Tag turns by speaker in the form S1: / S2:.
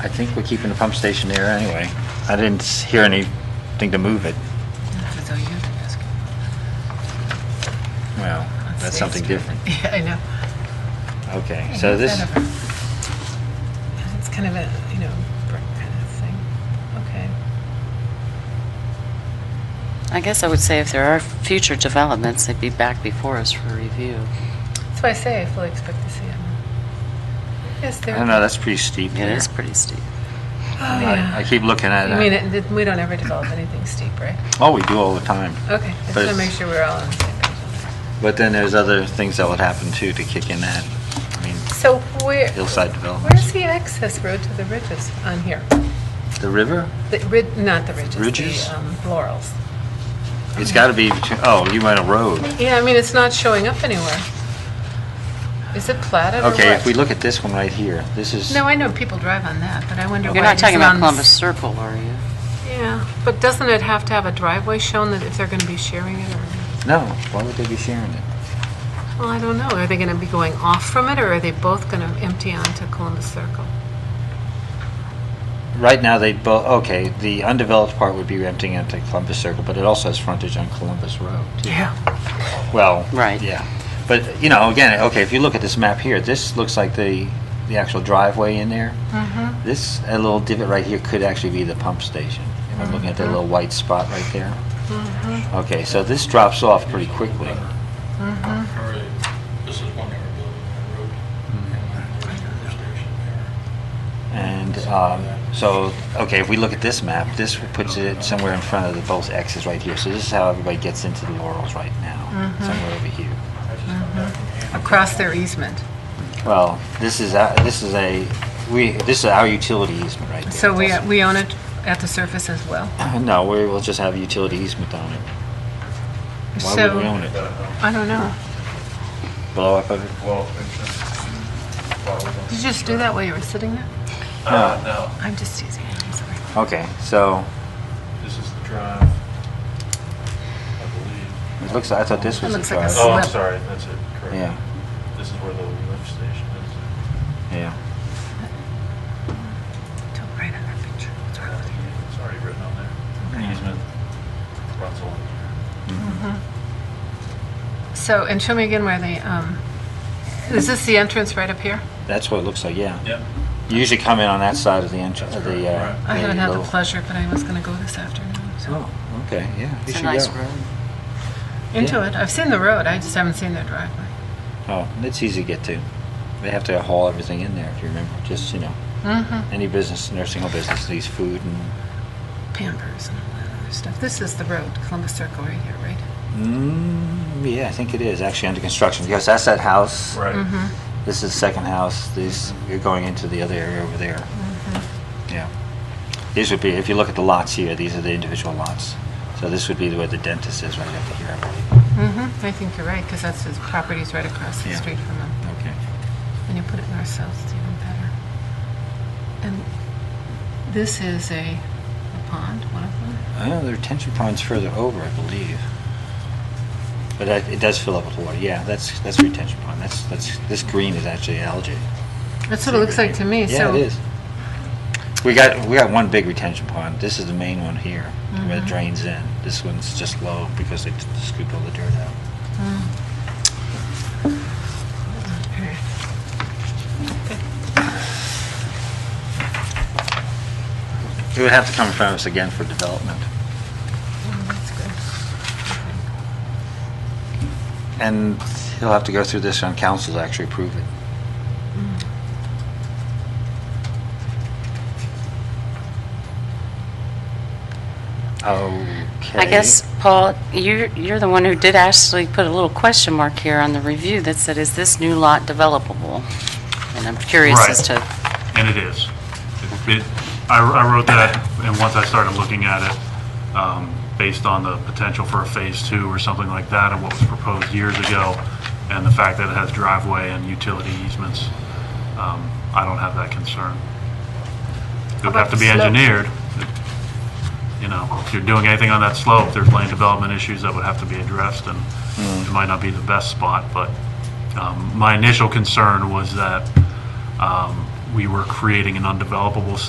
S1: I think we're keeping the pump station there anyway. I didn't s- hear anything to move it.
S2: That's all you have to ask.
S1: Well, that's something different.
S2: Yeah, I know.
S1: Okay,
S2: Yeah,
S1: so
S2: it's
S1: this,
S2: kind of a- It's kind of a, you know, brick kind of thing. Okay.
S3: I guess I would say if there are future developments, they'd be back before us for review.
S2: That's why I say I fully expect to see him. Yes,
S1: I
S2: there.
S1: don't know, that's pretty steep
S3: It
S1: there.
S3: is pretty steep.
S2: Oh,
S1: I I
S2: yeah.
S1: keep looking at
S2: You mean,
S1: it.
S2: it- that we don't ever develop anything steep, right?
S1: Oh, we do all the time.
S2: Okay, I
S1: But
S2: just want to
S1: it's-
S2: make sure we're all on the same page.
S1: But then there's other things that would happen too to kick in that. I mean,
S2: So where,
S1: hillside development.
S2: where's the access road to the ridges on here?
S1: The river?
S2: The rid, not the ridges. the,
S1: Ridges?
S2: um, Laurels. Mm-hmm.
S1: It's got to be, between- oh, you went a road.
S2: Yeah, I mean, it's not showing up anywhere. Is it platted or
S1: Okay, if
S2: what?
S1: we look at this one right here, this is,
S2: No, I know people drive on that, but I wonder why.
S3: You're not
S2: it
S3: talking
S2: isn't
S3: about
S2: on
S3: Columbus
S2: this-
S3: Circle, are you?
S2: Yeah, but doesn't it have to have a driveway shown that if they're going to be sharing it or,
S1: no, why would they be sharing it?
S2: well, I don't know. Are they going to be going off from it or are they both going to empty onto Columbus Circle?
S1: Right now, they both, okay, the undeveloped part would be emptying into Columbus Circle, but it also has frontage on Columbus Road. too.
S2: Yeah.
S1: Well,
S3: Right.
S1: yeah. But, you know, again, okay, if you look at this map here, this looks like the, the actual driveway in there.
S2: Mm-hmm.
S1: This, a little divot right here could actually be the pump station. Am I looking at
S2: Mm-hmm.
S1: that little white spot right there? Okay, so this drops off pretty quickly.
S4: Or This is one they were building on the road. and there's a station there.
S1: And um, so, okay, if we look at this map, this puts it somewhere in front of the both X's right here. So this is how everybody gets into the Laurels right now,
S2: Mm-hmm.
S1: somewhere over here.
S4: I just come back from Ann-
S2: Across their easement.
S1: Well, this is, a- this is a, we, this is our utility easement right there.
S2: So we, we own it at the surface as well?
S1: No, we will just have a utility easement on it. Why would
S2: So-
S1: we own it?
S2: I don't know.
S1: Blow up of it?
S4: Well, it's- well, we don't-
S2: Did you just do that while you were sitting there?
S4: Uh, no,
S2: I'm just teasing. you, I'm sorry.
S1: Okay, so,
S4: this is the drive, I believe.
S1: it looks, I thought this
S2: It
S1: was the
S2: looks like a
S1: drive.
S4: Oh, I'm
S2: Slip.
S4: sorry, that's it, correct.
S1: Yeah.
S4: This is where the lift station is.
S1: Yeah.
S2: Don't write on that picture. What's wrong with you?
S4: It's already written on there. The Easement runs along here.
S2: So, and show me again where the, um, is this the entrance right up here?
S1: That's what it looks like, yeah.
S4: Yep.
S1: You usually come in on that side of the entrance, of the, uh.
S2: I haven't had the
S1: little-
S2: pleasure, but I was going to go this afternoon, so.
S1: Oh, okay, yeah. you
S3: It's a
S1: should
S3: nice
S1: go.
S3: road.
S2: Into
S1: yeah.
S2: it. I've seen the road. I just haven't seen their driveway.
S1: Oh, it's easy to get to. They have to haul everything in there, if you remember, just, you know,
S2: Mm-hmm.
S1: any business, nursing home business, needs food and,
S2: Pampers and all that other stuff. This is the road, Columbus Circle right here, right?
S1: mm, yeah, I think it is actually under construction, because that's that house.
S2: Mm-hmm.
S4: Right.
S1: This is the second house, this, you're going into the other area over there.
S2: Mm-hmm.
S1: Yeah. These would be, if you look at the lots here, these are the individual lots. So this would be where the dentist is, right up here, I believe.
S2: Mm-hmm. I think you're right, because that's his property's right across the
S1: Yeah.
S2: street from him.
S1: Okay.
S2: When you put it in ourselves, it's even better. And this is a a pond, one of them.
S1: I know the retention pond's further over, I believe. But that- it does fill up with water, yeah, that's, that's retention pond, that's, that's, this green is actually algae.
S2: That's what it looks like to me,
S1: Yeah,
S2: so.
S1: it is. We got, we got one big retention pond, this is the main one here, where
S2: Mm-hmm.
S1: it drains in. This one's just low because they t- scooped all the dirt out.
S2: Mm. Oh,
S1: It would have to come in front of us again for development.
S2: That's good.
S1: And he'll have to go through this on council to actually approve it. Okay.
S3: Mm. I guess, Paul, you're, you're the one who did actually put a little question mark here on the review that said, is this new lot developable? And I'm curious
S5: Right.
S3: as to,
S5: And it is. It- it- I I wrote that, and once I started looking at it, um, based on the potential for a Phase 2 or something like that, and what was proposed years ago, and the fact that it has driveway and utility easements, um, I don't have that concern. It would
S2: about
S5: have to
S2: the
S5: be
S2: slope?
S5: engineered. You know, if you're doing anything on that slope, there's land development issues that would have to be addressed, and it might not be the best spot, but um, my initial concern was that um, we were creating an undevelopable